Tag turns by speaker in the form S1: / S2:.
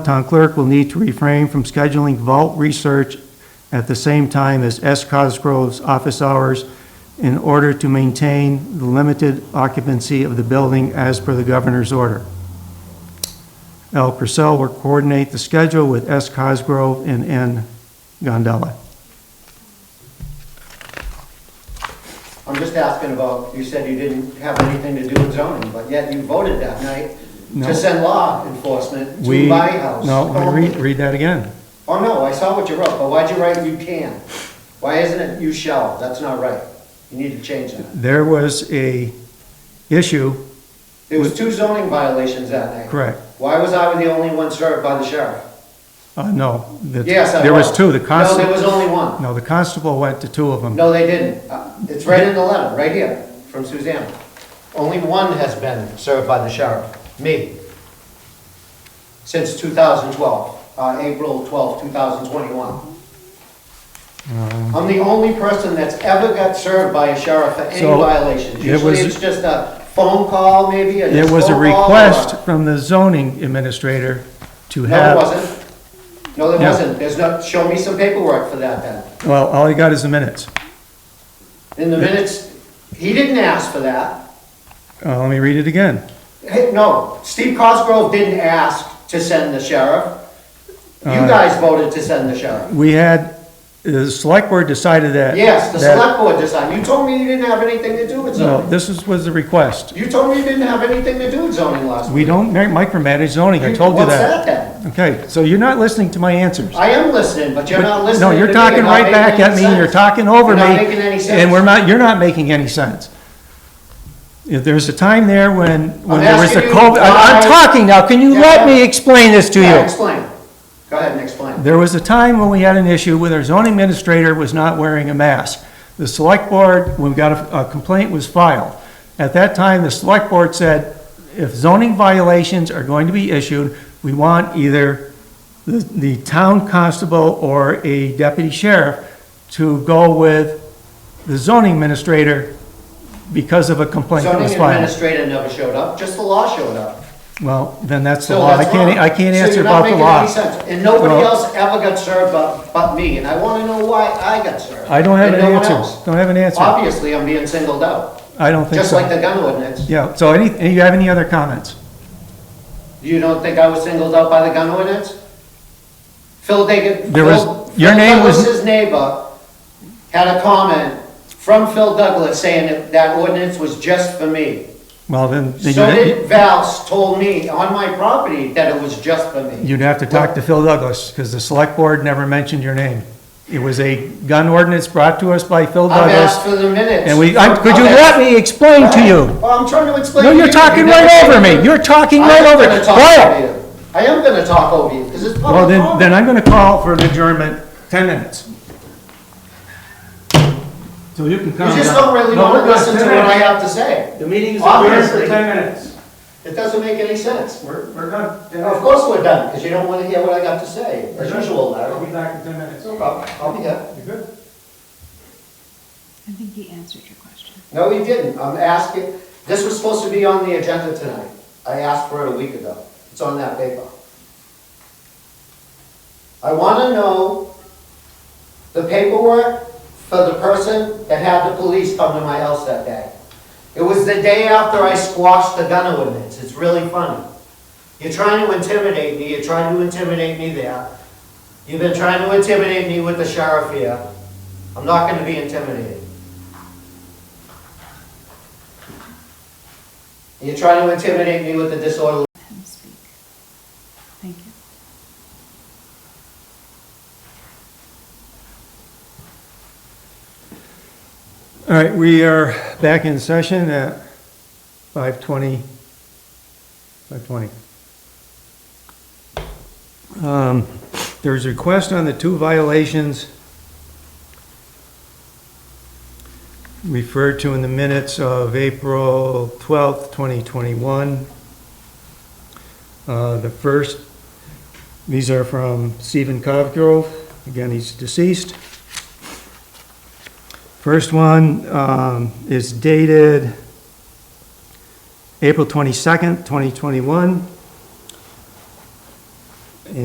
S1: Town clerk will need to refrain from scheduling vault research at the same time as S. Cosgrove's office hours in order to maintain the limited occupancy of the building as per the governor's order. L. Purcell will coordinate the schedule with S. Cosgrove and N. Gondella.
S2: I'm just asking about, you said you didn't have anything to do with zoning, but yet you voted that night
S1: No.
S2: to send law enforcement
S1: We
S2: to my house.
S1: No, wait, read, read that again.
S2: Oh, no, I saw what you wrote, but why'd you write you can? Why isn't it you shall? That's not right. You need to change that.
S1: There was a issue,
S2: There was two zoning violations that night.
S1: correct,
S2: Why was I the only one served by the sheriff?
S1: uh, no. that-
S2: Yes, I was.
S1: There was two, the
S2: No, there
S1: constable,
S2: was only one.
S1: no, the constable went to two of them.
S2: No, they didn't. Uh, It's right in the letter, right here, from Suzanne. Only one has been served by the sheriff, me, since 2012, uh, April 12, 2021. I'm the only person that's ever got served by a sheriff for any
S1: So,
S2: violations.
S1: it
S2: Usually
S1: was-
S2: it's just a phone call maybe, or just
S1: It was a
S2: phone call or-
S1: request from the zoning administrator to
S2: No, there
S1: have,
S2: wasn't. No, there
S1: Yeah.
S2: wasn't. There's no, show me some paperwork for that then.
S1: well, all he got is the minutes.
S2: In the minutes, he didn't ask for that.
S1: Uh, let me read it again.
S2: Hey, no, Steve Cosgrove didn't ask to send the sheriff. You
S1: Uh,
S2: guys voted to send the sheriff.
S1: We had, the select board decided that.
S2: Yes, the
S1: that-
S2: select board decided. You told me you didn't have anything to do with
S1: No,
S2: zoning.
S1: this is, was the request.
S2: You told me you didn't have anything to do with zoning last week.
S1: We don't ma- micromanage zoning, I told you
S2: What's that
S1: that.
S2: then?
S1: Okay, so you're not listening to my answers.
S2: I am listening, but you're not
S1: But-
S2: listening
S1: No,
S2: to
S1: you're
S2: me.
S1: talking
S2: not
S1: right
S2: making
S1: back at
S2: any
S1: me, and you're
S2: sense.
S1: talking over
S2: You're
S1: me.
S2: not making any sense.
S1: And we're not, you're not making any sense. If There's a time there when, when there was the
S2: asking you
S1: COVID, I- I'm
S2: why-
S1: talking now, can you
S2: Yeah,
S1: let
S2: yeah.
S1: me explain this to you?
S2: Yeah, explain. Go ahead and explain.
S1: There was a time when we had an issue where our zoning administrator was not wearing a mask. The select board, when we got a- a complaint, was filed. At that time, the select board said, if zoning violations are going to be issued, we want either the, the town constable or a deputy sheriff to go with the zoning administrator because of a complaint that
S2: Zoning
S1: was filed.
S2: administrator never showed up, just the law showed up.
S1: Well, then that's the
S2: So
S1: law. I
S2: that's
S1: can't, e,
S2: wrong.
S1: I can't
S2: So you're
S1: answer
S2: not
S1: about the
S2: making
S1: law.
S2: any sense. And nobody
S1: Well-
S2: else ever got served but, but me, and I wanna know why I got served.
S1: I don't have
S2: and
S1: an
S2: no one
S1: answer.
S2: else.
S1: Don't have an answer.
S2: Obviously, I'm being singled out,
S1: I don't think
S2: just
S1: so.
S2: like the gun ordinance.
S1: Yeah, so any, any- you have any other comments?
S2: You don't think I was singled out by the gun ordinance? Phil Diggins.
S1: There was-
S2: Phil-
S1: your
S2: Phil
S1: name was-
S2: Douglas's neighbor had a comment from Phil Douglas saying that that ordinance was just for me.
S1: Well, then, then
S2: So
S1: you'd-
S2: did Val's told me on my property that it was just for me.
S1: you'd have to talk to Phil Douglas, because the select board never mentioned your name. It was a gun ordinance brought to us by Phil
S2: I've asked
S1: Douglas,
S2: for the minutes.
S1: and we, I- could you
S2: Okay.
S1: let me explain to you?
S2: Well, I'm trying to explain.
S1: No,
S2: to
S1: you're
S2: you.
S1: talking
S2: You never
S1: right over
S2: said-
S1: me, you're talking right
S2: I'm
S1: over.
S2: gonna talk
S1: Quiet.
S2: over you. I am gonna talk over you, because it's public.
S1: Well, then,
S2: comment.
S1: then I'm gonna call for an adjournment, ten minutes. So you can come.
S2: You just
S1: now.
S2: don't really
S1: No,
S2: wanna
S1: we're not.
S2: listen to
S1: 10
S2: what I
S1: minutes.
S2: have to say.
S1: The meeting is adjourned for
S2: Obviously.
S1: ten minutes.
S2: It doesn't make any sense.
S1: We're, we're done.
S2: And of course we're done, because you don't wanna hear what I got to say, as usual,
S1: I'll
S2: Larry.
S1: be back in ten minutes.
S2: No problem, I'll be here.
S1: You good?
S3: I think he answered your question.
S2: No, he didn't, I'm asking, this was supposed to be on the agenda tonight. I asked for it a week ago, it's on that paper. I wanna know the paperwork for the person that had the police come to my house that day. It was the day after I squashed the gun ordinance, it's really funny. You're trying to intimidate me, you're trying to intimidate me there. You've been trying to intimidate me with the sheriff here. I'm not gonna be intimidated. You're trying to intimidate me with a disorderly.
S3: Let him speak. Thank you.
S1: All right, we are back in session at 5:20. 5:20. Um, There's a request on the two violations referred to in the minutes of April 12th, 2021. Uh, The first, these are from Stephen Cosgrove. Again, he's deceased. First one um, is dated April 22nd, 2021.